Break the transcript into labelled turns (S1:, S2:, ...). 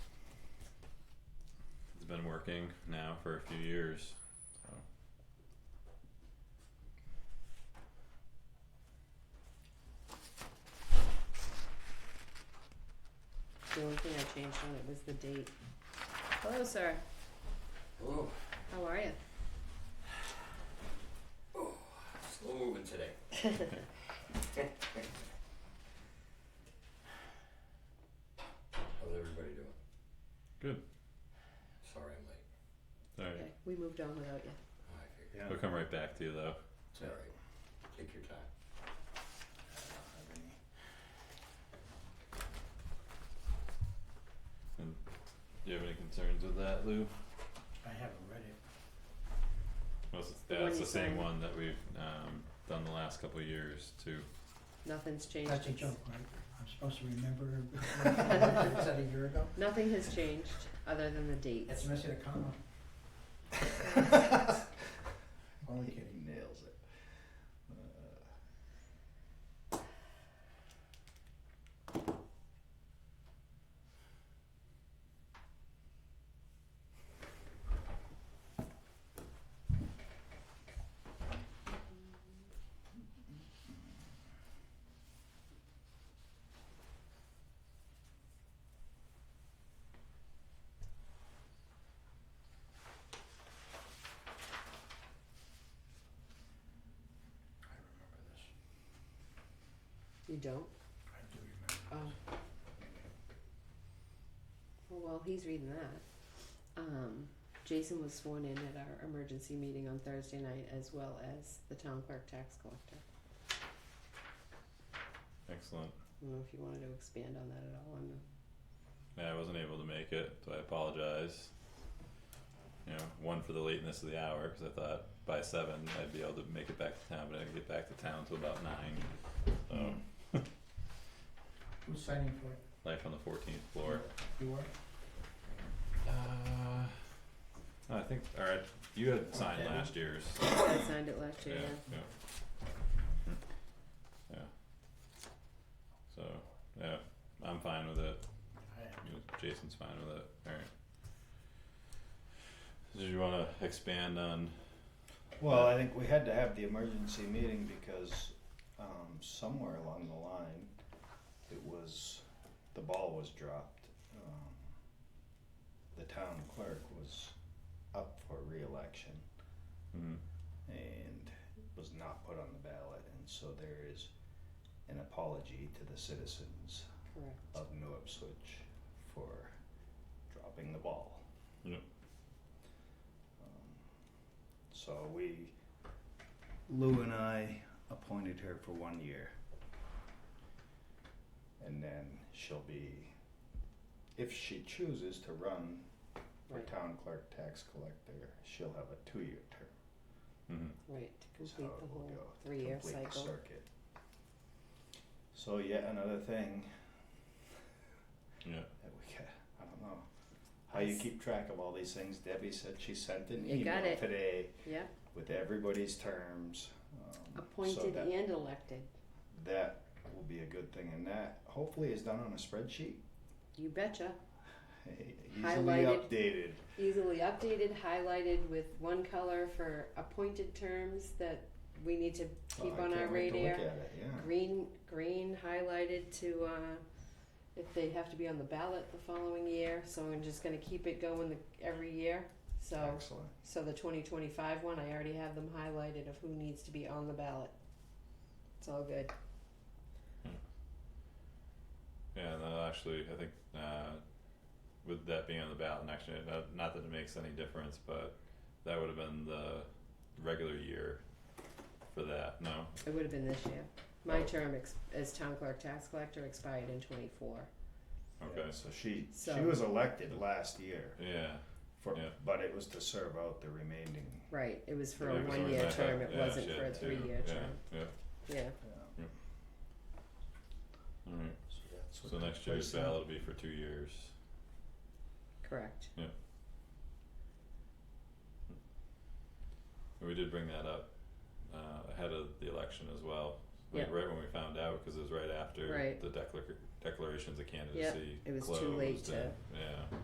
S1: been working now for a few years. So
S2: The only thing I changed on it was the date. Hello, sir.
S3: Hello.
S2: How are you?
S3: Slow moving today. How's everybody doing?
S1: Good.
S3: Sorry I'm late. Oh,
S1: sorry,
S2: Okay, we moved on without you.
S3: I figured.
S4: Yeah.
S1: we'll come right back to you though.
S3: It's alright. Take your time.
S1: Do you have any concerns with that, Lou?
S4: I haven't read it.
S1: Well, it's-
S2: The
S1: yeah,
S2: one
S1: it's
S2: you
S1: the same
S2: signed.
S1: one that we've um done the last couple of years too.
S2: Nothing's changed.
S4: That's a
S2: It's-
S4: joke, right? I'm supposed to remember. Was that a year ago?
S2: Nothing has changed other than the dates.
S4: That's missing a comma. Only kidding.
S5: Nails it.
S4: I remember this.
S2: You don't?
S4: I do remember.
S2: Oh. Well, while he's reading that, um, Jason was sworn in at our emergency meeting on Thursday night as well as the town clerk tax collector.
S1: Excellent.
S2: I don't know if you wanted to expand on that at all on the,
S1: Yeah, I wasn't able to make it, so I apologize. You know, one for the lateness of the hour because I thought by seven I'd be able to make it back to town, but I didn't get back to town till about nine. So
S4: Who's signing for it?
S1: life on the fourteenth floor.
S4: You are?
S1: Uh, I think. All right, you had signed
S4: Okay.
S1: last year's.
S2: I signed it last
S1: Yeah,
S2: year, yeah.
S1: yeah. Yeah. So, yeah, I'm fine with it.
S4: I am.
S1: You- Jason's fine with it. Alright. Did you wanna expand on,
S5: Well, I think we had to have the emergency meeting because um, somewhere along the line, it was, the ball was dropped. Um, The town clerk was up for reelection
S1: mm,
S5: and was not put on the ballot. And so there is an apology to the citizens
S2: Correct.
S5: of New Ipswich for dropping the ball.
S1: Yep.
S5: Um, So we, Lou and I appointed her for one year. And then she'll be, if she chooses to run for
S2: Right,
S5: town clerk, tax collector, she'll have a two-year term.
S1: mm,
S2: right, to
S5: is
S2: complete
S5: how
S2: the
S5: it will
S2: whole
S5: go, to
S2: three-year
S5: complete the
S2: cycle.
S5: circuit. So yet another thing
S1: yeah,
S5: that we got. I don't know how you
S2: Yes.
S5: keep track of all these things. Debbie said she sent an
S2: You
S5: email
S2: got it.
S5: today
S2: Yeah,
S5: with everybody's terms. Um, so
S2: appointed e-,
S5: that,
S2: and elected,
S5: that will be a good thing, and that hopefully is done on a spreadsheet,
S2: you betcha.
S5: easily
S2: Highlighted.
S5: updated.
S2: Easily updated, highlighted with one color for appointed terms that we need to
S5: Oh,
S2: keep
S5: I
S2: on our
S5: can't wait to
S2: radar.
S5: look at it, yeah.
S2: Green, green highlighted to, uh, if they have to be on the ballot the following year, so I'm just gonna keep it going the, every year. So,
S5: Excellent.
S2: so the twenty twenty-five one, I already have them highlighted of who needs to be on the ballot. It's all good.
S1: yeah, and that'll actually, I think, uh, with that being on the ballot next year, not, not that it makes any difference, but that would have been the regular year for that, no?
S2: It would have been this year. My
S1: Oh.
S2: term ex- as town clerk tax collector expired in twenty-four.
S1: Okay,
S5: Yeah, so she she
S2: So-
S5: was elected last year
S1: yeah,
S5: for,
S1: Yeah.
S5: but it was to serve out the remaining.
S2: Right, it was
S1: Yeah,
S2: for a
S1: it was always
S2: one-year
S1: like that.
S2: term, it
S1: Yeah,
S2: wasn't
S1: she
S2: for a
S1: had two.
S2: three-year
S1: Yeah,
S2: term,
S1: yeah.
S2: yeah,
S5: Yeah,
S1: alright,
S3: So that's what
S1: so
S3: the
S1: next year's
S3: person-
S1: ballot will be for two years.
S2: correct.
S1: And We did bring that up uh, ahead of the election as well. Like
S2: Yeah.
S1: right when we found out, because it was right after
S2: Right.
S1: the declar- declarations of candidacy
S2: It was
S1: closed.
S2: too late to-
S1: and- yeah.